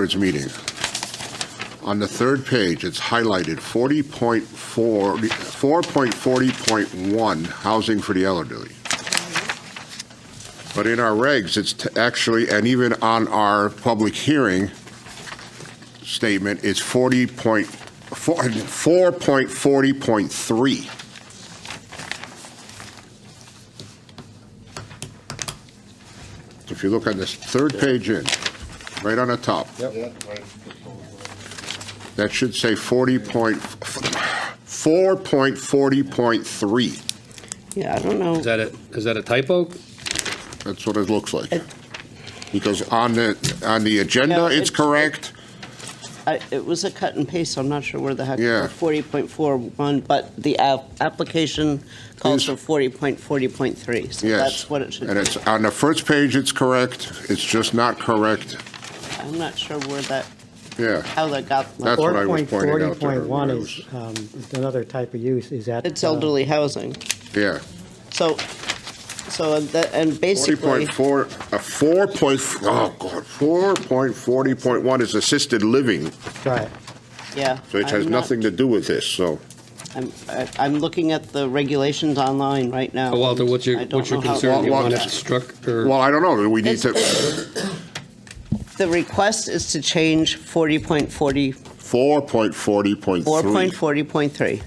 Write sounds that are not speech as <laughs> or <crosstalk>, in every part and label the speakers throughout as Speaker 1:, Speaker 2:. Speaker 1: board's meeting. On the third page, it's highlighted 40.4, 4.40.1, housing for the elderly. But in our regs, it's t- actually, and even on our public hearing statement, it's 40 point, 4 4.40.3. If you look on this third page in, right on the top. That should say 40 point, 4.40.3.
Speaker 2: Yeah, I don't
Speaker 3: Is
Speaker 2: know.
Speaker 3: that a, is that a typo?
Speaker 1: That's what it looks like. Because on the, on the agenda,
Speaker 2: No,
Speaker 1: it's
Speaker 2: it's-
Speaker 1: correct.
Speaker 2: I- It was a cut and paste, so I'm not sure where the heck,
Speaker 1: Yeah.
Speaker 2: 40.41, but the app- application calls for
Speaker 1: Is-
Speaker 2: 40.40.3, so
Speaker 1: Yes.
Speaker 2: that's what it should
Speaker 1: And
Speaker 2: be.
Speaker 1: it's, on the first page, it's correct. It's just not correct.
Speaker 2: I'm not sure where that,
Speaker 1: Yeah.
Speaker 2: how that got,
Speaker 1: That's what I was pointing out to her.
Speaker 4: 4.40.1 is um, is another type of use, is that?
Speaker 2: it's
Speaker 4: uh,
Speaker 2: elderly housing.
Speaker 1: Yeah.
Speaker 2: So, so, and that- and basically,
Speaker 1: 40.4, uh, 4 point, oh God, 4.40.1 is assisted living,
Speaker 4: uh, Right,
Speaker 2: yeah.
Speaker 1: which has
Speaker 2: I'm not-
Speaker 1: nothing to do with this, so.
Speaker 2: I'm, I- I'm looking at the regulations online right now.
Speaker 3: Uh, Walter, what's your,
Speaker 2: I don't
Speaker 3: what's your
Speaker 2: know how-
Speaker 3: concern? You
Speaker 1: Well,
Speaker 3: want it
Speaker 1: well-
Speaker 3: struck or?
Speaker 1: Well, I don't know. Do We need to,
Speaker 2: The request is to change 40.40,
Speaker 1: 4.40.3.
Speaker 2: 4.40.3.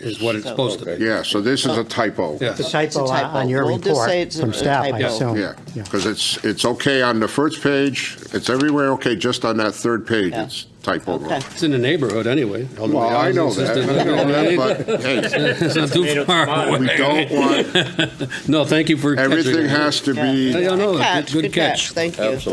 Speaker 3: is what it's supposed to be.
Speaker 1: Yeah, so this
Speaker 2: Uh,
Speaker 1: is a typo.
Speaker 3: Yeah.
Speaker 4: the
Speaker 3: It's
Speaker 4: typo on-
Speaker 2: typo.
Speaker 4: on your
Speaker 2: We'll just say
Speaker 4: report
Speaker 2: it's a-
Speaker 4: from
Speaker 2: a
Speaker 4: staff, I
Speaker 2: typo.
Speaker 4: assume.
Speaker 1: Yeah, because it's, it's okay on the first page, it's everywhere okay, just on that third page,
Speaker 2: Yeah.
Speaker 1: it's typo
Speaker 2: Okay.
Speaker 1: wrong.
Speaker 3: It's in the neighborhood anyway. elderly
Speaker 1: Well, I
Speaker 3: housing,
Speaker 1: know that,
Speaker 3: assisted
Speaker 1: I know that,
Speaker 3: living.
Speaker 1: but hey,
Speaker 3: <laughs> It's not too far
Speaker 1: we
Speaker 3: away.
Speaker 1: don't want,
Speaker 3: No, thank you for catching that.
Speaker 1: everything has to
Speaker 2: Yeah.
Speaker 3: I
Speaker 1: be,
Speaker 3: don't know. Good- good catch.
Speaker 2: Thank you.
Speaker 1: so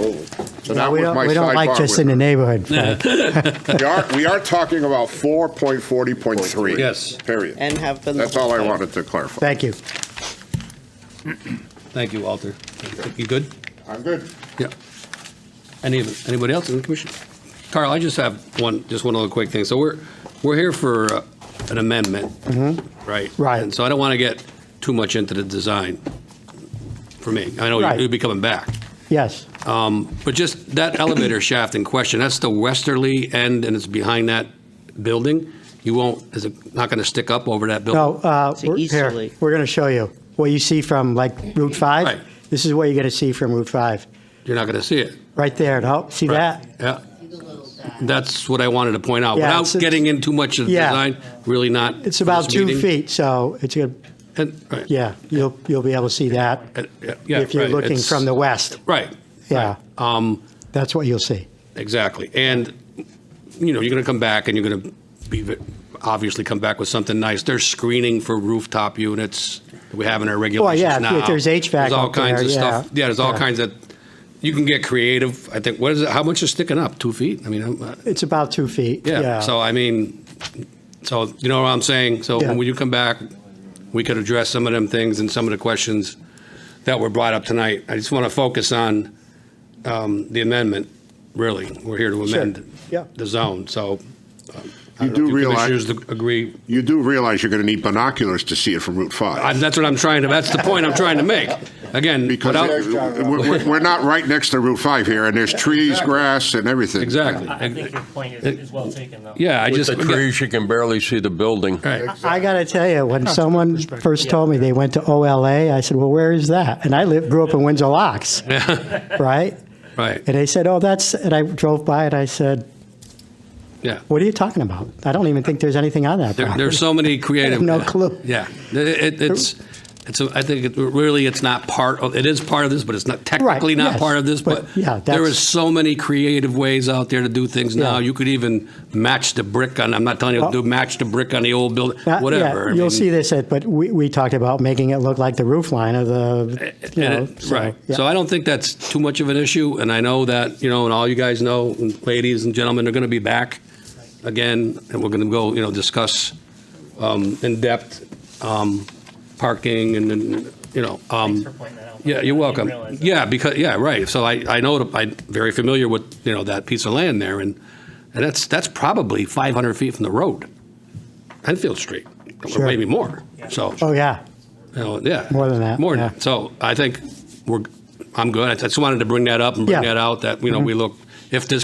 Speaker 4: Yeah,
Speaker 1: that
Speaker 4: We
Speaker 1: was
Speaker 4: don't,
Speaker 1: my
Speaker 4: we don't like just in the
Speaker 1: sidebar.
Speaker 4: neighborhood, Frank.
Speaker 1: with- We are, we are talking about 4.40.3.
Speaker 3: Yes.
Speaker 1: Period.
Speaker 2: And have been. the
Speaker 1: That's
Speaker 2: whole
Speaker 1: all I
Speaker 2: time.
Speaker 1: wanted to clarify.
Speaker 4: <laughs> Thank you.
Speaker 3: Thank you, Walter. You good?
Speaker 1: I'm good.
Speaker 3: Yeah. Any, anybody else in the commission? Carl, I just have one, just one little quick thing. So we're, we're here for uh, an amendment,
Speaker 1: Mm-hmm.
Speaker 3: right?
Speaker 4: Right.
Speaker 3: And so I don't want to get too much into the design for me. I know
Speaker 4: Right.
Speaker 3: you'll be coming back.
Speaker 4: Yes,
Speaker 3: Um, But just that elevator shaft in question, that's the westerly end and it's behind that building? You won't, is it not going to stick up over that building?
Speaker 4: no, uh,
Speaker 2: It's
Speaker 4: we're-
Speaker 2: easterly.
Speaker 4: here, we're going to show you what you see from like Route
Speaker 3: Right.
Speaker 4: 5. This is what you're going to see from Route 5,
Speaker 3: You're not going to see it?
Speaker 4: right there, no, see that?
Speaker 3: Yeah. That's what I wanted to point out.
Speaker 4: Yeah,
Speaker 3: Without
Speaker 4: it's- it's-
Speaker 3: getting in too much of the
Speaker 4: Yeah.
Speaker 3: design, really not.
Speaker 4: It's
Speaker 3: for
Speaker 4: about
Speaker 3: this
Speaker 4: two
Speaker 3: meeting.
Speaker 4: feet, so it's, gonna-
Speaker 3: And- right.
Speaker 4: yeah, you'll, you'll be able to see that
Speaker 3: And- yeah,
Speaker 4: if you're
Speaker 3: right,
Speaker 4: looking
Speaker 3: it's-
Speaker 4: from the west.
Speaker 3: Right,
Speaker 4: Yeah,
Speaker 3: um,
Speaker 4: that's what you'll see.
Speaker 3: exactly. And, you know, you're going to come back and you're going to be, v- obviously come back with something nice. There's screening for rooftop units that we have in our regulations
Speaker 4: yeah, if-
Speaker 3: now.
Speaker 4: if there's HVAC
Speaker 3: There's all
Speaker 4: up there,
Speaker 3: kinds of stuff.
Speaker 4: yeah.
Speaker 3: Yeah, there's all
Speaker 4: Yeah.
Speaker 3: kinds of, you can get creative. I think, what is it, how much is sticking up? Two feet? I mean, I'm, uh,
Speaker 4: It's about two feet,
Speaker 3: yeah.
Speaker 4: yeah.
Speaker 3: So I mean, so you know what I'm saying? So
Speaker 4: Yeah.
Speaker 3: when you come back, we could address some of them things and some of the questions that were brought up tonight. I just want to focus on um, the amendment, really. We're here to
Speaker 4: Sure.
Speaker 3: amend
Speaker 4: Yeah.
Speaker 3: the zone, so. um, I
Speaker 1: You
Speaker 3: don't know
Speaker 1: do
Speaker 3: if
Speaker 1: realize,
Speaker 3: Commissioners agree.
Speaker 1: you do realize you're going to need binoculars to see it from Route 5.
Speaker 3: I- That's what I'm trying to, that's the point I'm trying to make. Again, without,
Speaker 1: Because we're, we're not right next to Route 5 here, and there's trees, grass, and everything.
Speaker 3: exactly.
Speaker 5: I I think your point is, is well taken, though.
Speaker 3: Yeah, I
Speaker 6: With
Speaker 3: just.
Speaker 6: the trees, you can barely see the building.
Speaker 3: Right.
Speaker 4: I got to tell you, when someone first told me they went to OLA, I said, well, where is that? And I live, grew up in Windsor Locks,
Speaker 3: <laughs>
Speaker 4: right?
Speaker 3: Right,
Speaker 4: And they said, oh, that's, and I drove by and I said,
Speaker 3: yeah.
Speaker 4: what are you talking about? I don't even think there's anything on that
Speaker 3: There,
Speaker 4: property.
Speaker 3: there's so
Speaker 4: <laughs>
Speaker 3: many creative.
Speaker 4: no clue.
Speaker 3: Yeah, It- it- it's, it's. a- I think it, really, it's not part of. It is part of this, but it's not technically not
Speaker 4: yes,
Speaker 3: part of this. But,
Speaker 4: but yeah,
Speaker 3: there
Speaker 4: that's-
Speaker 3: is so many creative ways out there to do things now.
Speaker 4: Yeah.
Speaker 3: You could even match the brick on. I'm not telling you to
Speaker 4: Oh.
Speaker 3: do match the brick on the old building.
Speaker 4: That- yeah,
Speaker 3: whatever. I
Speaker 4: You'll
Speaker 3: mean,
Speaker 4: see this, at- but we, we talked about making it look like the roof line of the, you
Speaker 3: and
Speaker 4: know.
Speaker 3: it-
Speaker 4: so,
Speaker 3: right.
Speaker 4: yeah.
Speaker 3: So I don't think that's too much of an issue. And I know that you know, and all you guys know, and ladies and gentlemen, they're going to be back again, and we're going to go. You know, discuss um, in depth um, parking and then you know. Um,
Speaker 5: Thanks for pointing that out.
Speaker 3: Yeah, you're
Speaker 5: I didn't
Speaker 3: welcome.
Speaker 5: realize that.
Speaker 3: Yeah, because, yeah, right. So I, I know, I'm very familiar with, you know, that piece of land there, and, and that's, that's probably 500 feet from the road, Enfield Street, or
Speaker 4: Sure.
Speaker 3: maybe more, so,
Speaker 4: Oh, yeah,
Speaker 3: you know, yeah.
Speaker 4: More than that,
Speaker 3: More than
Speaker 4: yeah.
Speaker 3: that. So I think we're, I'm good. I just wanted to bring that up and bring
Speaker 4: Yeah. Mm-hmm.
Speaker 3: that out, that, you know, we look, if this